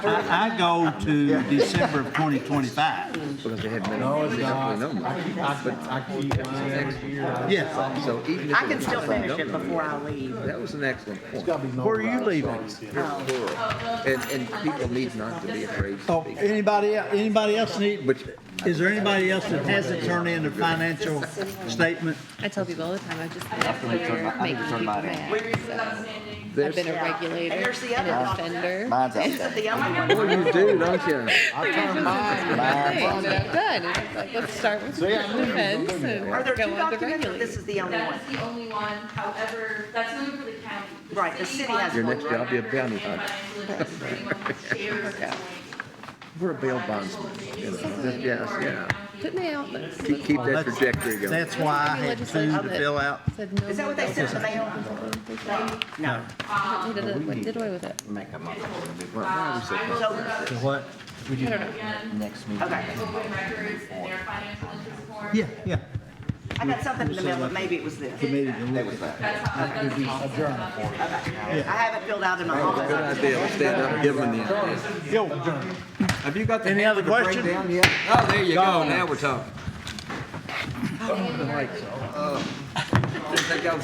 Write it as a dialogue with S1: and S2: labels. S1: I, I go to December of 2025.
S2: because they had minimum, they have the number.
S3: I keep mine every year.
S1: Yes.
S2: So even if
S4: I
S2: it
S4: can
S2: was
S4: still
S2: a
S4: finish it
S2: number,
S4: before I leave.
S2: That was an excellent point.
S1: Where are you leaving?
S2: Plural.
S4: Oh.
S2: And, and people need not to be afraid to
S1: Oh,
S2: speak.
S1: anybody, el- anybody else need,
S2: But
S1: is there anybody else that hasn't turned in their financial statement?
S5: I tell people all the time, I've just been a player making people mad. I've
S2: there's,
S5: been a
S4: Yeah.
S5: regulator
S4: And
S5: and
S4: there's the other
S5: an
S4: one.
S5: offender.
S6: Mine's out
S4: Is it
S6: there.
S4: the only one?
S2: oh, you do, don't you?
S5: Which is just my thing that I've done. It's just like, let's start with the defense and
S4: Are there
S5: go
S4: two
S5: on the
S4: documents or this
S5: regulator.
S4: is the only one?
S7: That is the only one, however, that's only for the county.
S4: Right, the city has
S2: Your
S4: one.
S2: next job be a bounty hunter. We're a bail bondsman. you know. Yes, yeah.
S5: Put me out there.
S2: Keep, keep that
S1: That's-
S2: trajectory going.
S1: That's why I had two to fill out.
S5: Said no.
S4: Is that what they sent in the mail? No.
S5: They did it- like, did away with it.
S6: Make a motion
S2: Well, why we say-
S4: So,
S1: What?
S5: I don't know.
S6: next meeting.
S4: okay.
S7: Open records and their financial interest form.
S1: Yeah, yeah.
S4: I got something in the mail, but maybe it was this. I
S1: Committee to look at that.
S7: That's how, that's the
S4: haven't filled out in my
S2: Good
S4: office.
S2: idea, let's stand up, and give them the idea.
S1: Yo,
S2: Have you got the
S1: Any other
S2: hammer to break
S1: question?
S2: down yet? Oh, there you uh, go, now we're talking. Oh, the lights. Oh. Didn't think I was